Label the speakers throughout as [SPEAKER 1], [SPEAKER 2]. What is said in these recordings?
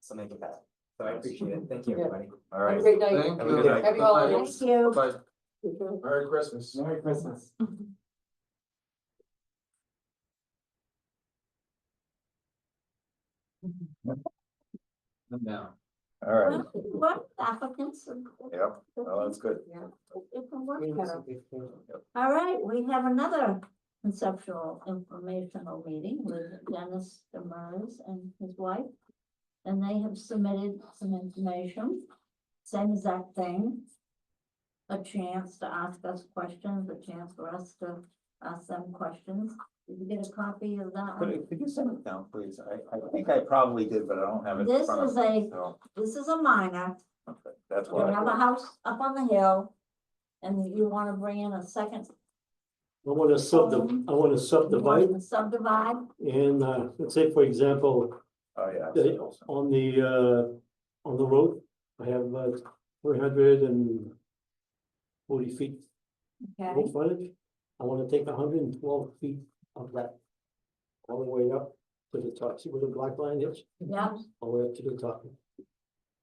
[SPEAKER 1] so make it happen. So I appreciate it, thank you, everybody.
[SPEAKER 2] All
[SPEAKER 3] Have a
[SPEAKER 2] right.
[SPEAKER 3] great night.
[SPEAKER 2] Thank
[SPEAKER 1] Have a
[SPEAKER 2] you.
[SPEAKER 1] good night.
[SPEAKER 3] Happy
[SPEAKER 2] Bye.
[SPEAKER 3] holidays.
[SPEAKER 4] Thank you.
[SPEAKER 2] Bye.
[SPEAKER 3] Thank you.
[SPEAKER 2] Merry Christmas. Mm-hmm.
[SPEAKER 1] Merry Christmas.
[SPEAKER 2] Now. All right,
[SPEAKER 4] What applicants? and-
[SPEAKER 2] Yep. well, that's good.
[SPEAKER 4] Yeah, it can work better. All right, we have another conceptual informational meeting with Dennis Demers and his wife. And they have submitted some information, same exact thing. A chance to ask us questions, a chance for us to ask them questions. Did you get a copy of that one?
[SPEAKER 2] Could, could you send it down, please? I, I think I probably did, but I don't have it in
[SPEAKER 4] This
[SPEAKER 2] front of
[SPEAKER 4] is
[SPEAKER 2] me,
[SPEAKER 4] a-
[SPEAKER 2] so,
[SPEAKER 4] This is a minor.
[SPEAKER 2] okay, that's
[SPEAKER 4] You
[SPEAKER 2] why.
[SPEAKER 4] have a house up on the hill. And you wanna bring in a second.
[SPEAKER 5] I want to sub,
[SPEAKER 4] Um,
[SPEAKER 5] I want to subdivide
[SPEAKER 4] Subdivide,
[SPEAKER 5] and, uh, let's say, for example,
[SPEAKER 2] Oh, yeah.
[SPEAKER 5] Yeah. on the, uh, on the road, I have, uh, three hundred and forty feet
[SPEAKER 4] okay,
[SPEAKER 5] road frontage. I want to take hundred and twelve feet of that all the way up to the top. See where the black line is?
[SPEAKER 4] yeah,
[SPEAKER 5] All the way up to the top. It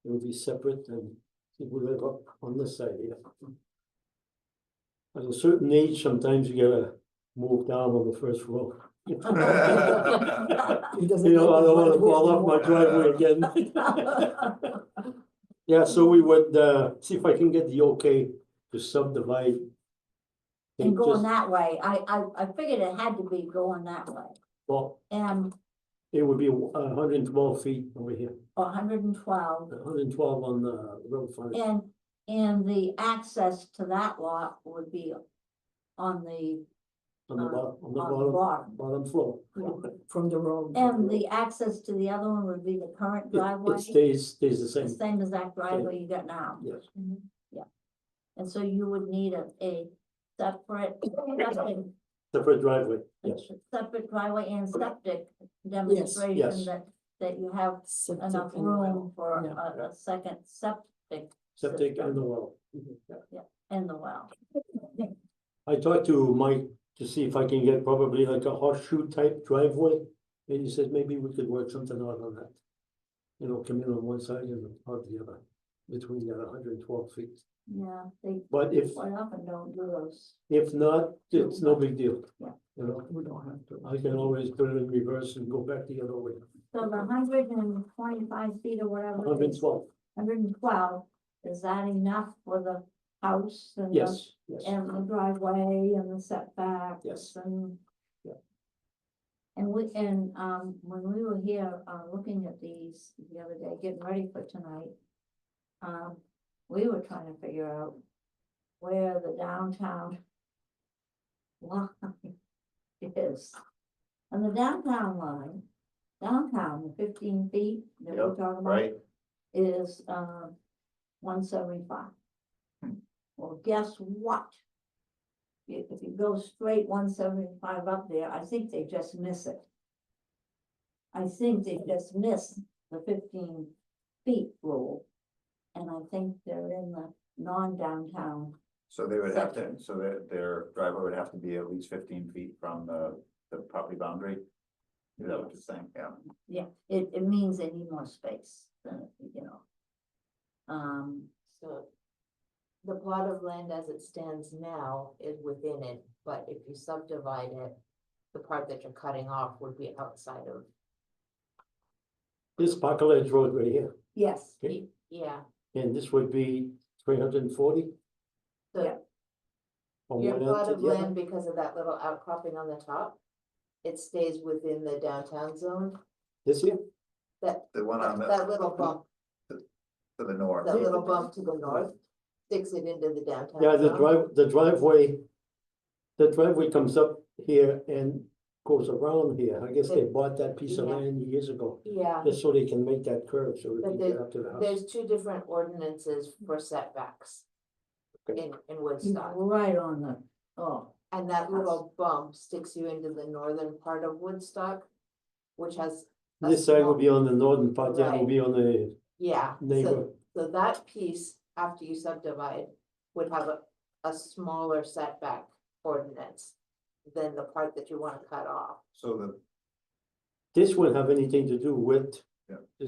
[SPEAKER 5] will be separate and it will live up on this side here. At a certain age, sometimes you gotta move down on the first row.
[SPEAKER 3] He
[SPEAKER 5] You
[SPEAKER 3] doesn't
[SPEAKER 5] know, I
[SPEAKER 3] his
[SPEAKER 5] don't wanna
[SPEAKER 3] wife
[SPEAKER 5] fall
[SPEAKER 3] wisdom
[SPEAKER 5] off my
[SPEAKER 3] or-
[SPEAKER 5] driveway again. Yeah, so we would, uh, see if I can get the okay to subdivide.
[SPEAKER 4] and
[SPEAKER 5] Think
[SPEAKER 4] going
[SPEAKER 5] just-
[SPEAKER 4] that way, I, I, I figured it had to be going that way.
[SPEAKER 5] Well,
[SPEAKER 4] And
[SPEAKER 5] it would be hundred and twelve feet over here,
[SPEAKER 4] hundred and twelve,
[SPEAKER 5] hundred and twelve on the road front.
[SPEAKER 4] and, and the access to that lot would be on the,
[SPEAKER 5] On the
[SPEAKER 4] uh,
[SPEAKER 5] bottom, on the
[SPEAKER 4] on the
[SPEAKER 5] bottom,
[SPEAKER 4] bar.
[SPEAKER 5] bottom floor.
[SPEAKER 3] From the road.
[SPEAKER 4] And the access to the other one would be the current
[SPEAKER 5] It-
[SPEAKER 4] driveway,
[SPEAKER 5] It stays, stays the
[SPEAKER 4] the
[SPEAKER 5] same,
[SPEAKER 4] same as that driveway you got now.
[SPEAKER 5] yes.
[SPEAKER 4] And so you would need a, a separate, septic-
[SPEAKER 5] Separate driveway,
[SPEAKER 4] a
[SPEAKER 5] yes.
[SPEAKER 4] separate driveway and septic demonstration
[SPEAKER 5] Yes.
[SPEAKER 4] that, that you have
[SPEAKER 3] Septic
[SPEAKER 4] enough
[SPEAKER 3] and well.
[SPEAKER 4] room for
[SPEAKER 3] Yeah.
[SPEAKER 4] a, a second septic
[SPEAKER 5] Septic
[SPEAKER 4] system
[SPEAKER 5] and the well.
[SPEAKER 4] Mm-hmm. and the well.
[SPEAKER 5] I talked to Mike to see if I can get probably like a horseshoe type driveway, and he said maybe we could work something out on that. You know, come in on one side and out the other, between that hundred and twelve feet.
[SPEAKER 4] Yeah, they
[SPEAKER 5] But if,
[SPEAKER 4] quite often don't do those.
[SPEAKER 5] if not, it's no big deal.
[SPEAKER 4] Yeah.
[SPEAKER 5] You know,
[SPEAKER 3] We don't have to.
[SPEAKER 6] Uh,
[SPEAKER 5] I can always put it in reverse and go back the other way,
[SPEAKER 4] So the hundred and twenty-five feet or whatever
[SPEAKER 5] hundred
[SPEAKER 4] it
[SPEAKER 5] and
[SPEAKER 4] is,
[SPEAKER 5] twelve,
[SPEAKER 4] hundred and twelve, is that enough for the house and the-
[SPEAKER 5] yes, yes.
[SPEAKER 4] And the driveway and the setbacks.
[SPEAKER 5] Yes.
[SPEAKER 4] And.
[SPEAKER 5] Yeah.
[SPEAKER 4] And we, and, um, when we were here, uh, looking at these the other day, getting ready for tonight. Um, we were trying to figure out where the downtown. Line is. And the downtown line, downtown, the fifteen feet that we
[SPEAKER 2] Yep,
[SPEAKER 4] talked about
[SPEAKER 2] Right,
[SPEAKER 4] is um one seventy-five.
[SPEAKER 2] Hmm.
[SPEAKER 4] Well, guess what? If if you go straight one seventy-five up there, I think they just miss it. I think they just miss the fifteen feet rule. And I think they're in the non-downtown,
[SPEAKER 2] so they would have to, so their, their driveway would have to be at least fifteen feet from the, the property boundary? Is that what you're saying? Yeah.
[SPEAKER 4] yeah, it it means they need more space than, you know. Um,
[SPEAKER 6] So the plot of land as it stands now is within it, but if you subdivide it, the part that you're cutting off would be outside of,
[SPEAKER 5] This Parker Ledge Road right here,
[SPEAKER 4] yes,
[SPEAKER 5] okay,
[SPEAKER 6] yeah.
[SPEAKER 5] and this would be three hundred and forty.
[SPEAKER 6] Yeah. Your plot of land, because of that little outcropping on the top, it stays within the downtown zone,
[SPEAKER 5] This here,
[SPEAKER 6] that,
[SPEAKER 2] The one on
[SPEAKER 6] that
[SPEAKER 2] the,
[SPEAKER 6] that little bump,
[SPEAKER 2] to the north.
[SPEAKER 6] that little bump to the north sticks it into the downtown.
[SPEAKER 5] yeah, the
[SPEAKER 6] zone.
[SPEAKER 5] drive, the driveway. The driveway comes up here and goes around here, I guess they bought that piece of
[SPEAKER 6] Yeah.
[SPEAKER 5] land years ago,
[SPEAKER 6] Yeah,
[SPEAKER 5] just so they can make that curve, so we
[SPEAKER 6] But
[SPEAKER 5] can get up to the house.
[SPEAKER 6] there's two different ordinances for setbacks
[SPEAKER 5] Okay.
[SPEAKER 6] in, in Woodstock.
[SPEAKER 4] right on the, oh.
[SPEAKER 6] And that little bump sticks you into the northern part of Woodstock, which has, a
[SPEAKER 5] This side will
[SPEAKER 6] small-
[SPEAKER 5] be on the northern part, that will
[SPEAKER 6] Right.
[SPEAKER 5] be on the
[SPEAKER 6] yeah, so,
[SPEAKER 5] neighbor,
[SPEAKER 6] so that piece, after you subdivide, would have a, a smaller setback ordinance than the part that you wanna cut off.
[SPEAKER 2] So the,
[SPEAKER 5] this won't have anything to do with.